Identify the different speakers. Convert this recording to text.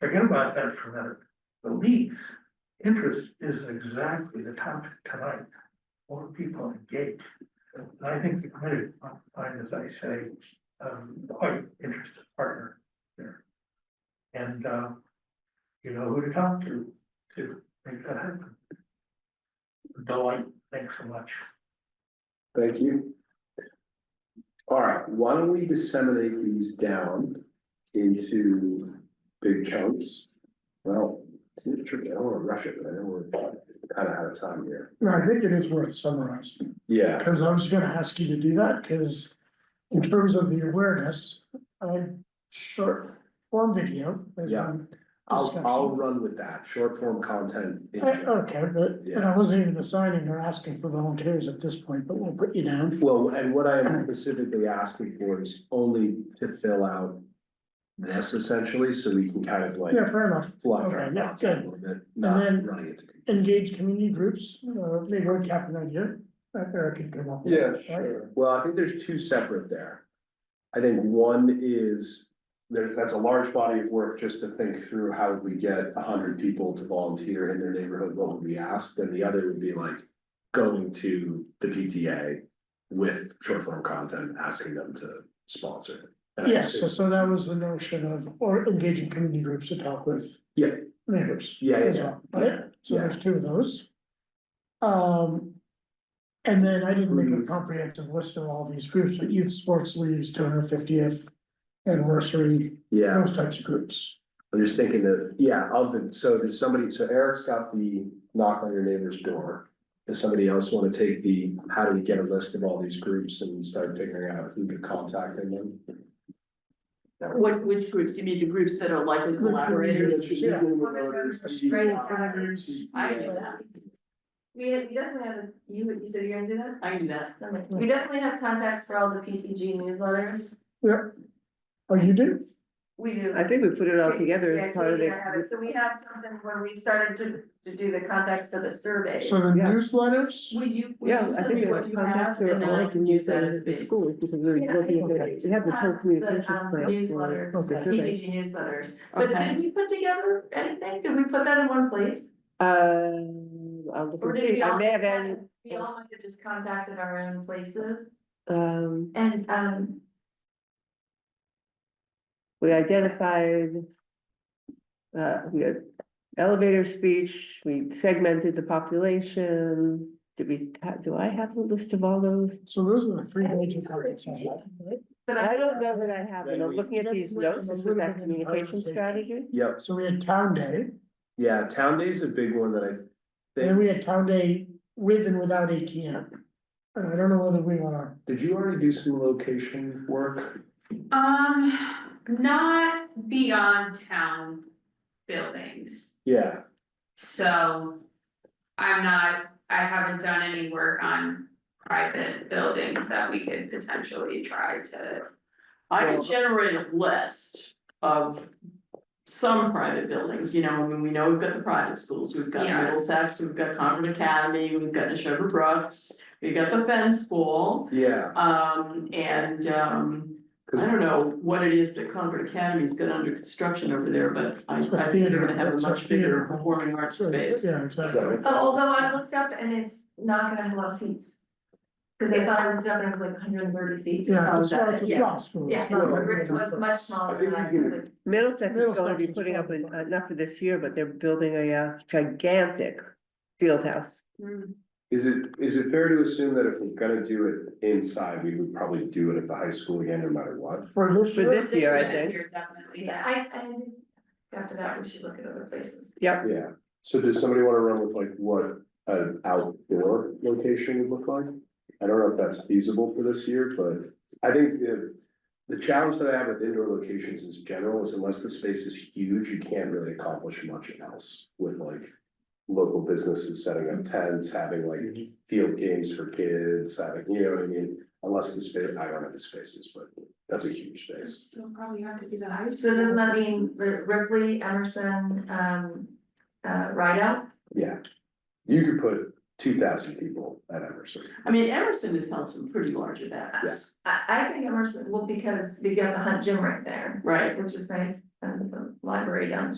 Speaker 1: forget about that for a minute. The league's interest is exactly the topic tonight. More people engaged. And I think the committee, might find, as I say, um, quite interested partner there. And, uh, you know who to talk to, to make that happen. Delight, thanks so much.
Speaker 2: Thank you. All right, why don't we disseminate these down into big chunks? Well, it's a little tricky, I don't wanna rush it, but I know we're kind of out of time here.
Speaker 3: No, I think it is worth summarizing,
Speaker 2: Yeah,
Speaker 3: because I was gonna ask you to do that, because in terms of the awareness, I short form video. there's
Speaker 2: Yeah.
Speaker 3: been
Speaker 2: I'll,
Speaker 3: discussion. Uh,
Speaker 2: I'll run with that, short form content. in
Speaker 3: I-
Speaker 2: general.
Speaker 3: Eh, Okay, but, and I wasn't even assigning or asking for volunteers at this point, but we'll put you down.
Speaker 2: Well, and what I am specifically asking for is only to fill out this essentially, so we can kind of like
Speaker 3: Yeah, fair enough.
Speaker 2: flush our
Speaker 3: Okay, yeah,
Speaker 2: thoughts out a
Speaker 3: good.
Speaker 2: little bit, not
Speaker 3: then-
Speaker 2: running into.
Speaker 3: Engage community groups, uh, maybe I have an idea, that Eric can come up with. right?
Speaker 2: Well, I think there's two separate there. I think one is, there, that's a large body of work just to think through how would we get a hundred people to volunteer in their neighborhood, what would we ask? And the other would be like going to the PTA with short form content, asking them to sponsor. it. And I
Speaker 3: Yes, so,
Speaker 2: assume-
Speaker 3: so that was the notion of, or engaging community groups to talk with.
Speaker 2: Yeah.
Speaker 3: Neighbors.
Speaker 2: Yeah, yeah,
Speaker 3: as
Speaker 2: yeah,
Speaker 3: well, Right,
Speaker 2: yeah,
Speaker 3: so there's two of those. Um. And then I didn't make a comprehensive list of all these groups, but youth sports leagues, two hundred fiftieth anniversary,
Speaker 2: Yeah,
Speaker 3: those types of groups.
Speaker 2: I'm just thinking that, yeah, of the, so does somebody, so Eric's got the knock on your neighbor's door. Does somebody else wanna take the, how do we get a list of all these groups and start figuring out who to contact in them?
Speaker 4: What, which groups? You mean the groups that are likely collaborators?
Speaker 3: Groups, yeah.
Speaker 4: I can do that.
Speaker 5: We have, you definitely have, you, you said you're gonna do that?
Speaker 4: I can do that.
Speaker 5: Okay. We definitely have contacts for all the PTG newsletters.
Speaker 3: Oh, you do?
Speaker 5: We do.
Speaker 6: I think we put it all together
Speaker 5: Yeah,
Speaker 6: as part of
Speaker 5: Katie and I have
Speaker 6: the,
Speaker 5: it. So we have something where we started to, to do the contacts for the survey.
Speaker 3: So the
Speaker 6: Yeah.
Speaker 3: newsletters,
Speaker 4: Will you, will
Speaker 6: yeah,
Speaker 4: you
Speaker 6: I
Speaker 4: send
Speaker 6: think
Speaker 4: me
Speaker 6: there are
Speaker 4: what you
Speaker 6: contacts
Speaker 4: have
Speaker 6: that
Speaker 4: and then
Speaker 6: are
Speaker 4: I
Speaker 6: all
Speaker 4: can use that
Speaker 6: at
Speaker 4: as a
Speaker 6: the
Speaker 4: base?
Speaker 6: schools, because we're
Speaker 5: Yeah, I
Speaker 6: looking
Speaker 5: think
Speaker 6: at it, we have the
Speaker 5: Uh,
Speaker 6: whole communications
Speaker 5: um,
Speaker 6: plan. for-
Speaker 5: Newsletters,
Speaker 6: for the
Speaker 5: uh,
Speaker 6: survey.
Speaker 5: PTG newsletters. But
Speaker 4: Okay.
Speaker 5: did we put together anything? Did we put that in one place?
Speaker 6: Um, I'll look
Speaker 5: Or
Speaker 6: and
Speaker 5: did
Speaker 6: see,
Speaker 5: we
Speaker 6: Uh, I
Speaker 5: all,
Speaker 6: may have
Speaker 5: kind
Speaker 6: added,
Speaker 5: of- we all might have just contacted our own places
Speaker 6: um,
Speaker 5: and, um,
Speaker 6: we identified. Uh, we had elevator speech, we segmented the population, did we, do I have the list of all those?
Speaker 3: so those are the three major targets. I have.
Speaker 5: but I.
Speaker 6: I don't know that I have, it.
Speaker 2: Then
Speaker 6: I'm
Speaker 2: we-
Speaker 6: looking at these notes, this was that communication strategy.
Speaker 2: Yep,
Speaker 3: So we had Town Day,
Speaker 2: yeah, Town Day's a big one that I
Speaker 3: and then
Speaker 2: think,
Speaker 3: we had Town Day with and without ATM. And I don't know whether we wanna,
Speaker 2: did you already do some location work?
Speaker 7: Um, not beyond town buildings,
Speaker 2: Yeah,
Speaker 7: so I'm not, I haven't done any work on private buildings that we could potentially try to.
Speaker 4: I can generate a list of some private buildings, you know, I mean, we know we've got the private schools, we've got
Speaker 7: Yeah.
Speaker 4: Middlesex, we've got Concord Academy, we've got Neshoba Brooks. We've got the Fenn School,
Speaker 2: yeah,
Speaker 4: um, and, um, I don't know what it is that Concord Academy's got under construction over there, but I, I
Speaker 3: It's a
Speaker 4: think they're gonna have a
Speaker 3: theater, it's
Speaker 4: much
Speaker 3: a
Speaker 4: bigger
Speaker 3: theater.
Speaker 4: performing arts
Speaker 3: so,
Speaker 4: space.
Speaker 3: yeah, exactly.
Speaker 5: Oh, Although I looked up and it's not gonna have a lot of seats. Cause I thought I looked up and it was like hundred and thirty seats.
Speaker 3: Yeah,
Speaker 6: Oh,
Speaker 3: it's a small,
Speaker 6: that-
Speaker 3: it's a
Speaker 6: yeah.
Speaker 3: small school.
Speaker 5: Yeah,
Speaker 3: It's
Speaker 5: so
Speaker 3: not
Speaker 5: the
Speaker 3: like
Speaker 5: grid
Speaker 3: big
Speaker 5: was
Speaker 3: enough.
Speaker 5: much smaller than I was like,
Speaker 6: Middlesex is going to
Speaker 3: Middlesex
Speaker 6: be
Speaker 3: is
Speaker 6: putting up,
Speaker 3: probably
Speaker 6: an- uh,
Speaker 3: fine.
Speaker 6: not for this year, but they're building a uh, gigantic field house.
Speaker 2: Is it, is it fair to assume that if we're gonna do it inside, we would probably do it at the high school again, no matter what?
Speaker 3: For this
Speaker 6: For
Speaker 3: year,
Speaker 6: this year, I think,
Speaker 7: You're definitely, yeah.
Speaker 5: I, I, after that, we should look at other places.
Speaker 2: Yeah, so does somebody wanna run with like what an outdoor location would look like? I don't know if that's feasible for this year, but I think the. The challenge that I have with indoor locations is general is unless the space is huge, you can't really accomplish much else with like. Local businesses setting up tents, having like field games for kids, having, you know what I mean? Unless the space, I don't have the spaces, but that's a huge space.
Speaker 7: Still probably have to do the high
Speaker 5: So doesn't that mean the Ripley, Emerson, um, uh, Rideout?
Speaker 2: Yeah. You could put two thousand people at Emerson.
Speaker 4: I mean, Emerson has held some pretty large events,
Speaker 5: I, I think Emerson, well, because you got the Hunt Gym right there,
Speaker 4: right?
Speaker 5: which is nice, and the library down the